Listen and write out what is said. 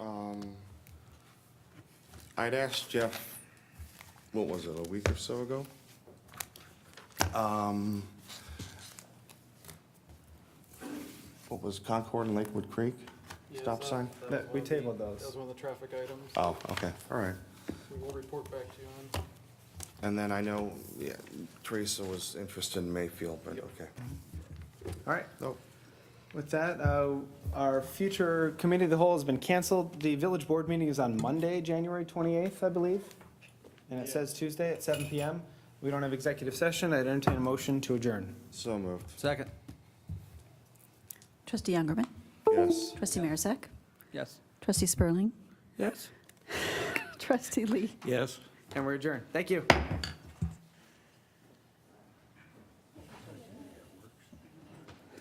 Um, I'd asked Jeff, what was it, a week or so ago? Um, What was Concord and Lakewood Creek? Yeah, is Stop that- sign? uh, that That- was one we of the- tabled those. That was one of the traffic items. Oh, okay, all right. We will report back to you on. And then I know yeah, Teresa was interested in Mayfield, but Yep. okay. All right, Nope. with that, uh, our future committee of the whole has been canceled. The village board meeting is on Monday, January 28th, I believe. And it Yeah. says Tuesday at 7 PM. We don't have executive session. I'd entertain a motion to adjourn. So moved. Second. Trustee Youngerman. Yes. Trustee Marisak. Yes. Trustee Spurling. Yes. Trustee Lee. Yes. And we're adjourned. Thank you.